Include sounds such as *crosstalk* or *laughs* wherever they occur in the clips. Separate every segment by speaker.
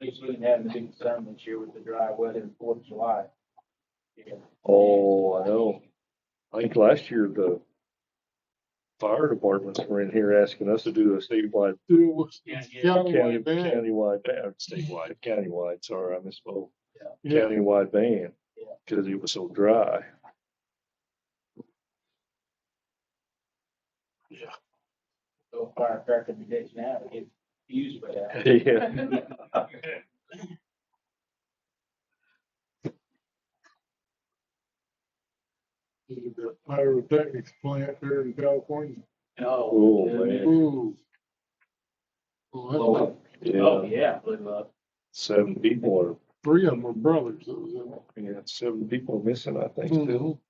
Speaker 1: Houston had a big sun this year with the dry weather and Fourth of July. Yeah.
Speaker 2: Oh, I know. I think last year the fire departments were in here asking us to do a statewide,
Speaker 3: Do was
Speaker 1: Yeah, yeah.
Speaker 2: county,
Speaker 3: countywide ban.
Speaker 2: countywide, ban- statewide, countywide, sorry, I misspoke.
Speaker 3: Yeah,
Speaker 2: Countywide ban,
Speaker 1: Yeah.
Speaker 2: because it was so dry.
Speaker 1: So firecracker the ditch now, it gets used by that.
Speaker 3: *laughs*
Speaker 2: Yeah.
Speaker 3: the pyrotechnics plant there in California.
Speaker 2: Oh, man.
Speaker 3: Ooh. Hmm. Well, that's like
Speaker 1: Oh, oh,
Speaker 2: Yeah,
Speaker 1: yeah, blew up.
Speaker 2: seven people are,
Speaker 3: three of them were brothers that was in it.
Speaker 2: yeah, seven people missing, I think, still.
Speaker 3: Mhm.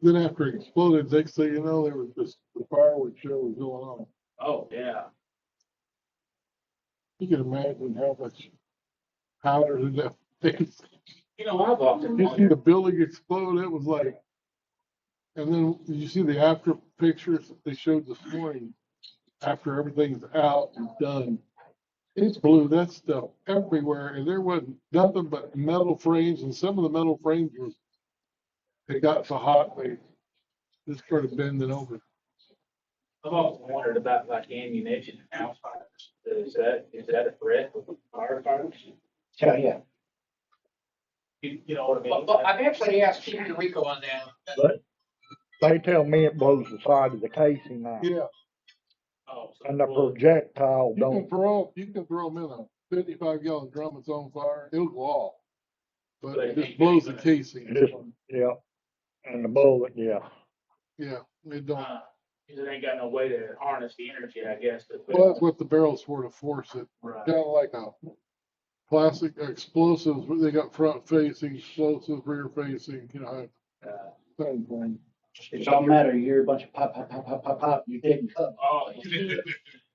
Speaker 3: Then after it exploded, next thing you know, there was just the fireworks show was going on.
Speaker 1: Oh, yeah.
Speaker 3: You can imagine how much powder and that. *laughs*
Speaker 1: You know, I've often
Speaker 3: You see
Speaker 1: wondered,
Speaker 3: the building explode, it was like. And then you see the after pictures they showed this morning, after everything's out and done. It blew that stuff everywhere and there wasn't nothing but metal frames and some of the metal frames was. It got so hot, they just started bending over.
Speaker 1: I've often wondered about like ammunition and house fires. Is that, is that a threat with firefighters?
Speaker 4: Yeah, yeah.
Speaker 1: You, you know what I mean?
Speaker 4: Well, well, I've actually asked Chief Rico on that.
Speaker 5: They tell me it blows the side of the casing out,
Speaker 3: Yeah,
Speaker 1: Oh, so-
Speaker 5: and the projectile
Speaker 3: you can
Speaker 5: don't,
Speaker 3: throw, you can throw them in a fifty-five gallon drum, it's on fire, it'll go off. But it just blows the casing,
Speaker 5: just, yeah, and the bullet, yeah.
Speaker 3: yeah, it don't.
Speaker 1: Uh, 'cause it ain't got no way to harness the energy, I guess. to-
Speaker 3: Well, that's what the barrels for to force it,
Speaker 1: Right.
Speaker 3: kind of like a plastic explosives, where they got front facing, explosives rear facing, you know.
Speaker 1: Uh,
Speaker 3: same thing.
Speaker 4: It's all matter, you hear a bunch of pop, pop, pop, pop, pop, pop, you didn't cut.
Speaker 1: Oh, yeah.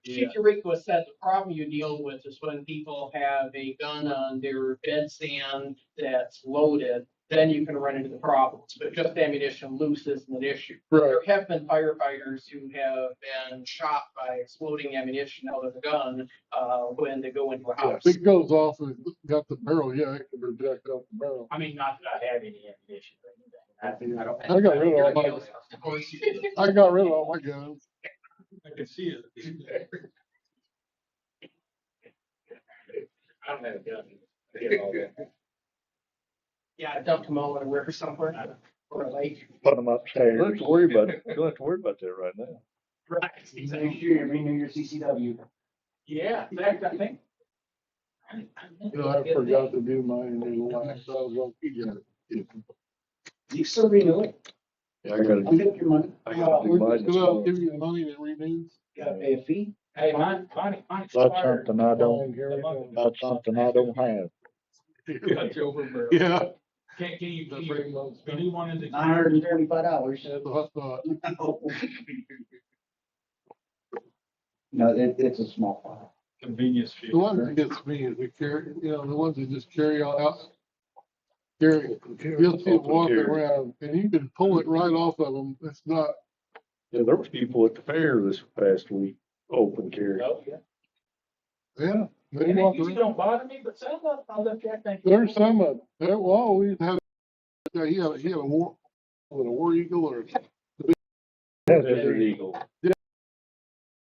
Speaker 4: Chief Rico said the problem you deal with is when people have a gun on their bed stand that's loaded, then you can run into the problems, but just ammunition loose isn't an issue.
Speaker 3: Right,
Speaker 4: There have been firefighters who have been shot by exploding ammunition out of the gun, uh, when they go into a
Speaker 3: yeah,
Speaker 4: house.
Speaker 3: if it goes off and it's got the barrel, yeah, it can project out the barrel.
Speaker 1: I mean, not that I have any ammunition or anything. I think I don't.
Speaker 3: I got rid of all my, I got rid of all my guns.
Speaker 1: I can see it. I don't have a gun. I get all that.
Speaker 4: Yeah, I dumped them all in a river somewhere, or a lake.
Speaker 5: Put them
Speaker 2: You don't
Speaker 5: upstairs.
Speaker 2: have to worry about, you don't have to worry about that right now.
Speaker 4: Right.
Speaker 1: Exactly.
Speaker 4: year, every New Year's CCW.
Speaker 1: Yeah, in fact, I think.
Speaker 3: You know, I forgot to do mine, and the last, I was gonna keep it.
Speaker 4: You still renew it?
Speaker 2: Yeah, I gotta,
Speaker 4: I'll take your money.
Speaker 2: I gotta do mine. this
Speaker 3: Cause I'll
Speaker 2: morning.
Speaker 3: give you the money that renews.
Speaker 4: Gotta pay a fee.
Speaker 1: Hey, mine, mine, mine
Speaker 5: That's
Speaker 1: expired.
Speaker 5: something I don't,
Speaker 3: Yeah.
Speaker 5: that's something I don't have.
Speaker 1: It's over, bro.
Speaker 3: *laughs* Yeah.
Speaker 1: Can, can you, can
Speaker 3: That
Speaker 1: you,
Speaker 3: brings up-
Speaker 1: anyone in the.
Speaker 4: Nine hundred and thirty-five dollars.
Speaker 3: That's what I thought.
Speaker 4: *laughs* No, it, it's a small file.
Speaker 1: Convenience fee.
Speaker 3: The one that gets me is we carry, you know, the ones that just carry all out. Carry, you'll see it walking around and you can pull it right off of them. It's not,
Speaker 2: Yeah, there was people at the fair this past week, open carry.
Speaker 1: Oh, yeah.
Speaker 3: yeah, they
Speaker 1: And
Speaker 3: walk
Speaker 1: it usually
Speaker 3: around.
Speaker 1: don't bother me, but some of them, I look at, think.
Speaker 3: There's some of, there, well, we had, yeah, he had, he had a war, was it a war eagle or a
Speaker 2: Desert Eagle.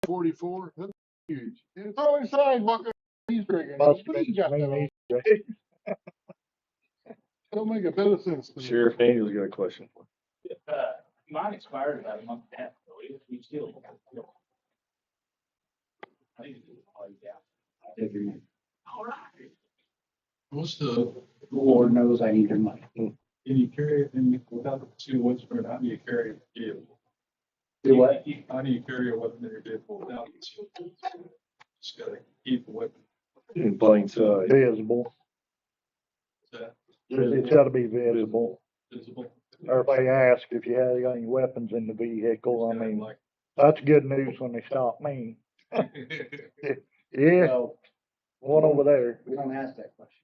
Speaker 3: forty-four. That's huge. And It's on his side walking, he's drinking. What
Speaker 5: Must
Speaker 3: do you got that on?
Speaker 5: be-
Speaker 3: Don't make a bit of sense to me.
Speaker 2: Sheriff Daniel's got a question for
Speaker 1: Uh, mine expired about a month and a half ago, if you still. I think it's all you got. All right.
Speaker 6: What's the,
Speaker 4: Lord knows I need your money.
Speaker 6: can you carry it in without the two woods, but how do you carry it? in?
Speaker 4: Do what?
Speaker 6: How do you carry a weapon in your vehicle without? the two woods? Just gotta keep the weapon.
Speaker 2: you. In plain sight.
Speaker 5: Visible,
Speaker 6: Is
Speaker 5: it's gotta be visible.
Speaker 6: that visible?
Speaker 5: Everybody asks if you have any weapons in the vehicle, I mean,
Speaker 6: Like-
Speaker 5: that's good news when they stop
Speaker 4: *laughs*
Speaker 5: me. Yeah,
Speaker 4: No,
Speaker 5: one over there.
Speaker 4: we don't ask that question.